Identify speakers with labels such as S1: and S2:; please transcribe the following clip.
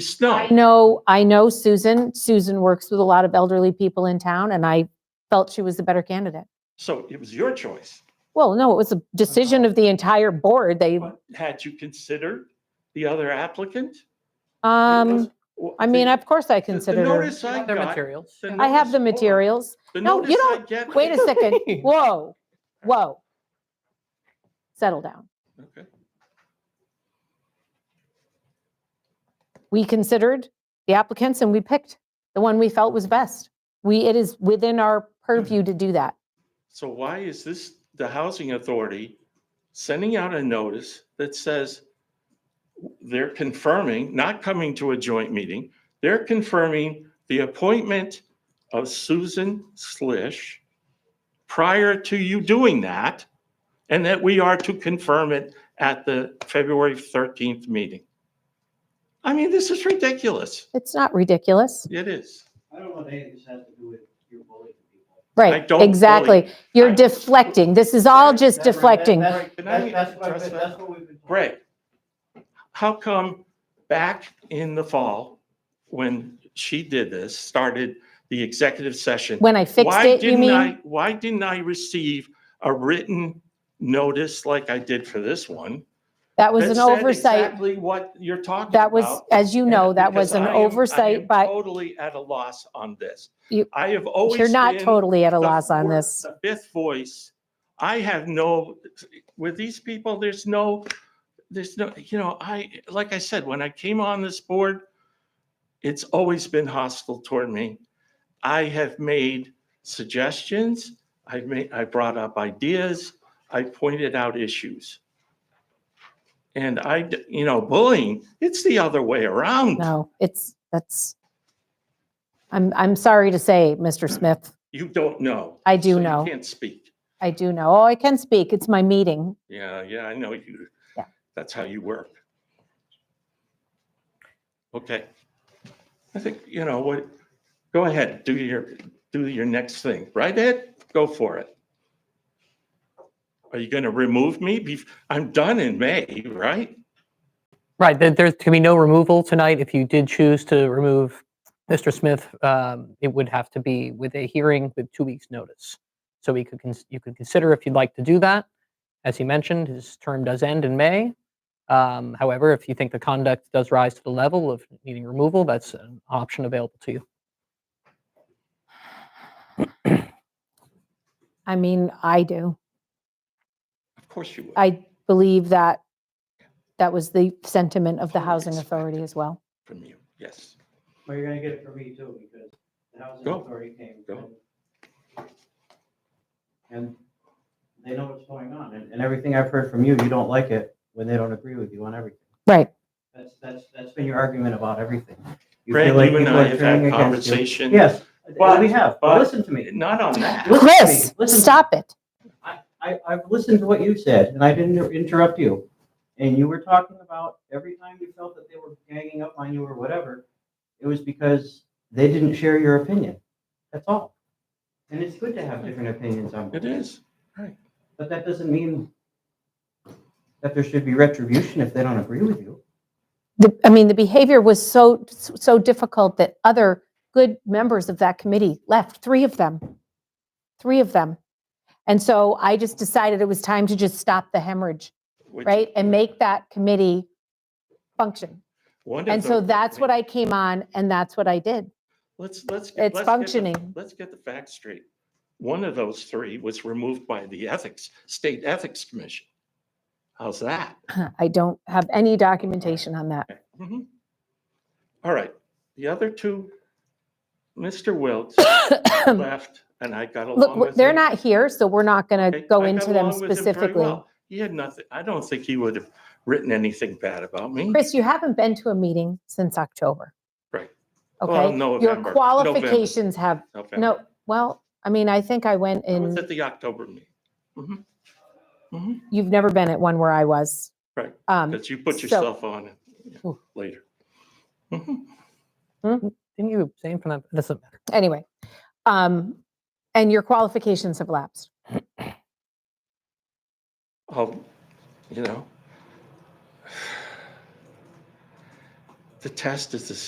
S1: snow.
S2: I know, I know Susan. Susan works with a lot of elderly people in town, and I felt she was the better candidate.
S1: So it was your choice.
S2: Well, no, it was a decision of the entire board. They,
S1: But had you considered the other applicant?
S2: um, I mean, of course I
S1: The
S2: considered her.
S1: notice I
S3: Their
S1: got-
S3: materials.
S1: the
S2: I
S1: notice-
S2: have the
S1: hold on.
S2: materials.
S1: The
S2: No, you
S1: notice I
S2: don't-
S1: get-
S2: Wait a second. Whoa, whoa. Settle down.
S1: Okay.
S2: We considered the applicants and we picked the one we felt was best. We, it is within our purview to do that.
S1: So why is this, the housing authority sending out a notice that says they're confirming, not coming to a joint meeting, they're confirming the appointment of Susan Slish prior to you doing that, and that we are to confirm it at the February 13th meeting? I mean, this is ridiculous.
S2: It's not ridiculous.
S1: It is.
S4: I don't know if any of this has to do with your bullying people.
S1: I
S2: Right,
S1: don't bully.
S2: exactly. You're
S1: I-
S2: deflecting. This is all just
S4: That's right,
S2: deflecting.
S4: that-
S1: Right, can I
S4: That's, that's what, I've
S1: address
S4: been-
S1: that?
S4: that's what we've been.
S1: Greg, how come back in the fall, when she did this, started the executive session?
S2: When I fixed
S1: why
S2: it, you
S1: didn't
S2: mean?
S1: I- Why didn't I receive a written notice like I did for this one?
S2: That was
S1: that
S2: an
S1: said
S2: oversight.
S1: Exactly what you're talking about.
S2: That was, as you know,
S1: And
S2: that was
S1: because I
S2: an
S1: am- I am
S2: oversight by,
S1: Totally at a loss on this.
S2: You-
S1: I have always
S2: you're not
S1: been
S2: totally at a
S1: the
S2: loss on
S1: fourth-
S2: this.
S1: the Fifth voice, I have no, with these people, there's no, there's no, you know, I, like I said, when I came on this board, it's always been hostile toward me. I have made suggestions, I've made, I brought up ideas, I pointed out issues. And I, d- you know, bullying, it's the other way around.
S2: No, it's, that's, I'm, I'm sorry to say, Mr. Smith,
S1: You don't know.
S2: I do
S1: so
S2: know.
S1: You can't speak.
S2: I do know. Oh, I can speak. It's my meeting.
S1: Yeah, yeah, I know you.
S2: Yeah.
S1: That's how you work. Okay. I think, you know, what, go ahead, do your, do your next thing, right, Ed? Go for it. Are you going to remove me? Bef- I'm done in May, right?
S3: Right, there, there can be no removal tonight. If you did choose to remove Mr. Smith, um, it would have to be with a hearing with two weeks' notice. So we could, cons- you could consider if you'd like to do that. As he mentioned, his term does end in May. Um, however, if you think the conduct does rise to the level of needing removal, that's an option available to you.
S2: I mean, I do.
S1: Of course you would,
S2: I believe that that was the sentiment of the
S1: Totally
S2: housing
S1: expected.
S2: authority as well.
S1: from you, yes.
S4: Well, you're gonna get it from me too, because the housing
S1: Go.
S4: authority came.
S1: Go.
S4: And they know what's going on, and, and everything I've heard from you, you don't like it when they don't agree with you on everything.
S2: Right.
S4: That's, that's, that's been your argument about everything. You
S1: Greg,
S4: feel like
S1: you and
S4: people
S1: I
S4: are
S1: have
S4: turning
S1: had
S4: against you.
S1: conversations.
S4: Yes,
S1: But-
S4: we have,
S1: but-
S4: but listen to me.
S1: Not on that.
S4: Listen to me,
S2: Chris,
S4: listen to me.
S2: stop it.
S4: I, I've listened to what you said, and I didn't interrupt you. And you were talking about every time you felt that they were ganging up on you or whatever, it was because they didn't share your opinion. That's all. And it's good to have different opinions on
S1: It is.
S4: But that doesn't mean that there should be retribution if they don't agree with you.
S2: the, I mean, the behavior was so, so difficult that other good members of that committee left, three of them, three of them. And so I just decided it was time to just stop the hemorrhage,
S1: which
S2: right? And make that committee function.
S1: one of
S2: And so
S1: the-
S2: that's what I came on and that's what I did.
S1: Let's, let's. get- let's
S2: It's
S1: get the-
S2: functioning.
S1: Let's get the facts straight. One of those three was removed by the ethics, State Ethics Commission. How's that?
S2: I don't have any documentation on that.
S1: Mhm. All right, the other two, Mr. Wiltz left and I got along with
S2: Look,
S1: him.
S2: w- they're not here, so we're not going to
S1: Okay,
S2: go
S1: I got
S2: into
S1: along
S2: them
S1: with him very
S2: specifically.
S1: well. He had nothing, I don't think he would have written anything bad about me.
S2: Chris, you haven't been to a meeting since October.
S1: Right. Well,
S2: Okay? Your
S1: November- November,
S2: qualifications have,
S1: November.
S2: no, well, I mean, I think I went
S1: I was
S2: in,
S1: at the October meeting. Mhm. Mhm.
S2: you've never been at one where I was.
S1: Right.
S2: Um,
S1: But you put
S2: so-
S1: yourself on it yeah,
S2: Ooh.
S1: later. Mhm.
S3: Didn't you abstain from that? Doesn't matter.
S2: anyway, um, and your qualifications have lapsed.
S1: Oh, you know. the test is the